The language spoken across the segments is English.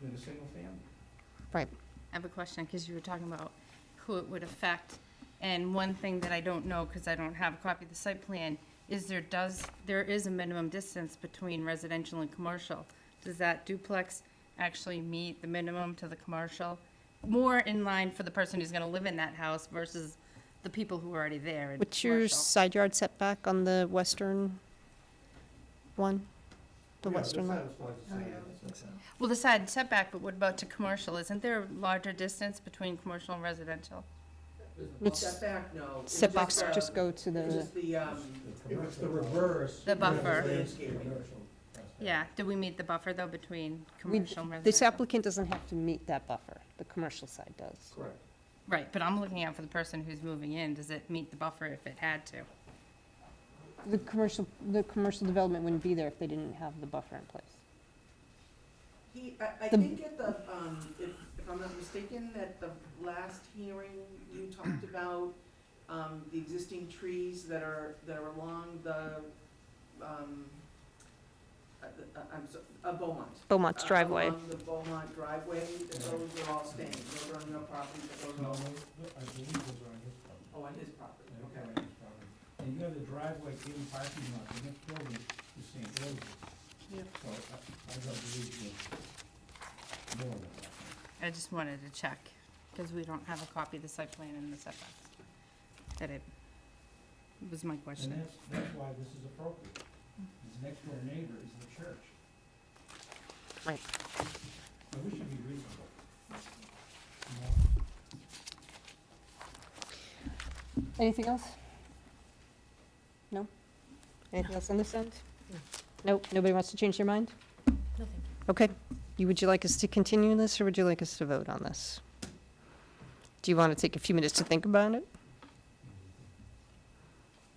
than a single family. Right. I have a question, because you were talking about who it would affect, and one thing that I don't know, because I don't have a copy of the site plan, is there does, there is a minimum distance between residential and commercial. Does that duplex actually meet the minimum to the commercial? More in line for the person who's gonna live in that house versus the people who are already there in What's your commercial? side yard setback on the western one? The Yeah, western that lot? satisfies the same. That's Well, the side setback, but what about to commercial? Isn't there a larger distance between commercial and residential? It's- Setback, no. It was Setbacks uh, just go to It was the, just the, um, it. It was the reverse. The buffer. landscaping. Yeah, do we meet the buffer, though, between we, commercial and residential? this applicant doesn't have to meet that buffer, the commercial side does. Correct. Right, but I'm looking out for the person who's moving in. Does it meet the buffer if it had to? The commercial, the commercial development wouldn't be there if they didn't have the buffer in place. He, I, I The- think at the, um, if, if I'm not mistaken, at the last hearing, you talked about, um, the existing trees that are, that are along the, um, uh, the- uh, I'm so, uh, Beaumont. Beaumont's Uh, driveway. Along the Beaumont driveway, that those are all staying, those are on your property, but those are No, all, I believe those are on his property. oh, on his property, okay. They're on his property. And you have the driveway in parking lot, the next building is St. Rose's. Yeah. So I, I don't believe you. No, no, no. I just wanted to check, because we don't have a copy of the site plan and the setbacks. That it, was my And question. that's, that's why this is appropriate. His next door neighbor is the church. Right. So we should be reasonable. You know, Anything else? No? Anything else on this end? No, nobody wants to change their mind? Okay, you, would you like us to continue this, or would you like us to vote on this? Do you want to take a few minutes to think about it?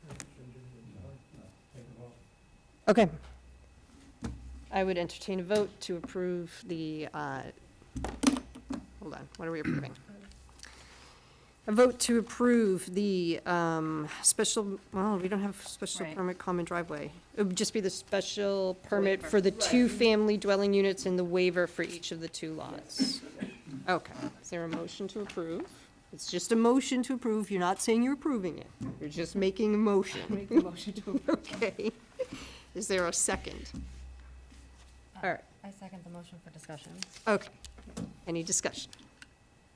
no, Take a vote. Okay. I would entertain a vote to approve the, uh, hold on, what are we approving? A vote to approve the um, special, well, we don't have special Right. permit common driveway. It would just be the special permit for the Waiver. two-family dwelling units and the waiver for each of the two lots. Okay, is there a motion to approve? It's just a motion to approve, you're not saying you're approving it, you're just making a motion. Making a motion to approve. Okay. Is there a second? All right, I second the motion for discussion. okay. Any discussion?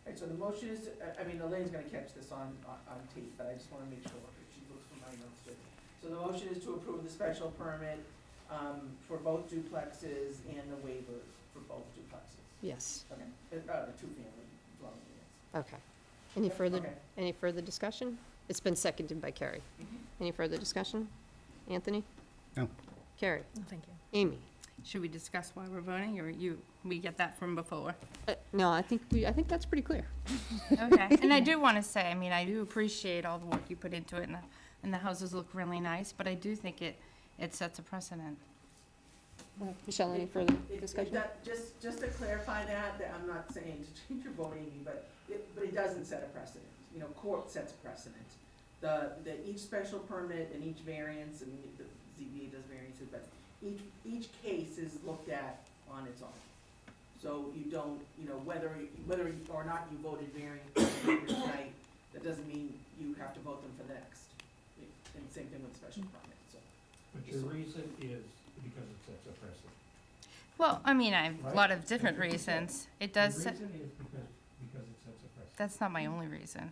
All right, so the motion is, uh, I- I mean, Elaine's gonna catch this on, on- on tape, but I just wanna make sure that she looks for my notes too. So the motion is to approve the special permit, um, for both duplexes and the waiver for both duplexes. Yes, Okay, uh, uh, the two-family dwelling units. okay. Any further, Okay. any further discussion? It's been seconded by Carrie. Mhm. Any further discussion? Anthony? No. Carrie? Thank you. Amy? Should we discuss why we're voting, or you, we get that from before? Uh, No, I think, we. I think that's pretty clear. Okay, and I do want to say, I mean, I do appreciate all the work you put into it, and the, and the houses look really nice, but I do think it, it sets a precedent. Michelle, any further It- it discussion? do- Just, just to clarify that, that I'm not saying to change your vote, Amy, but it, but it doesn't set a precedent. You know, court sets precedent. The, the, each special permit and each variance, and the ZBA does variances, but each, each case is looked at on its own. So you don't, you know, whether, whether or not you voted variance tonight, that doesn't mean you have to vote them for the next. And same thing with special permit, so. But your reason is because it sets a precedent. Well, I mean, I have a Right. lot of different That's what you said. reasons. It does, The set- reason is because, because it sets a precedent. that's not my only reason.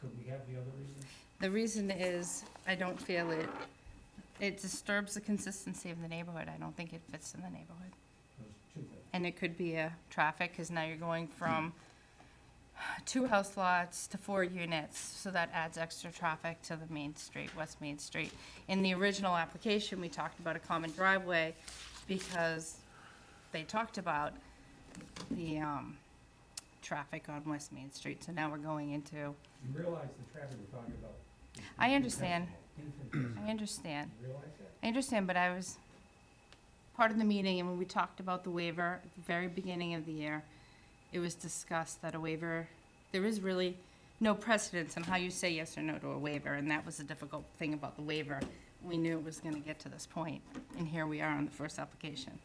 Could we have the other reason? The reason is, I don't feel it, it disturbs the consistency of the neighborhood, I don't think it fits in the neighborhood. Those two things. And it could be a traffic, because now you're going from two house lots to four units, so that adds extra traffic to the main street, West Main Street. In the original application, we talked about a common driveway, because they talked about the, um, traffic on West Main Street, so now we're going into, You realize the traffic we're talking about. is I understand. infinitesimal. I understand. You realize that? I understand, but I was part of the meeting, and when we talked about the waiver at the very beginning of the year, it was discussed that a waiver, there is really no precedence on how you say yes or no to a waiver, and that was the difficult thing about the waiver. We knew it was gonna get to this point, and here we are on the first application.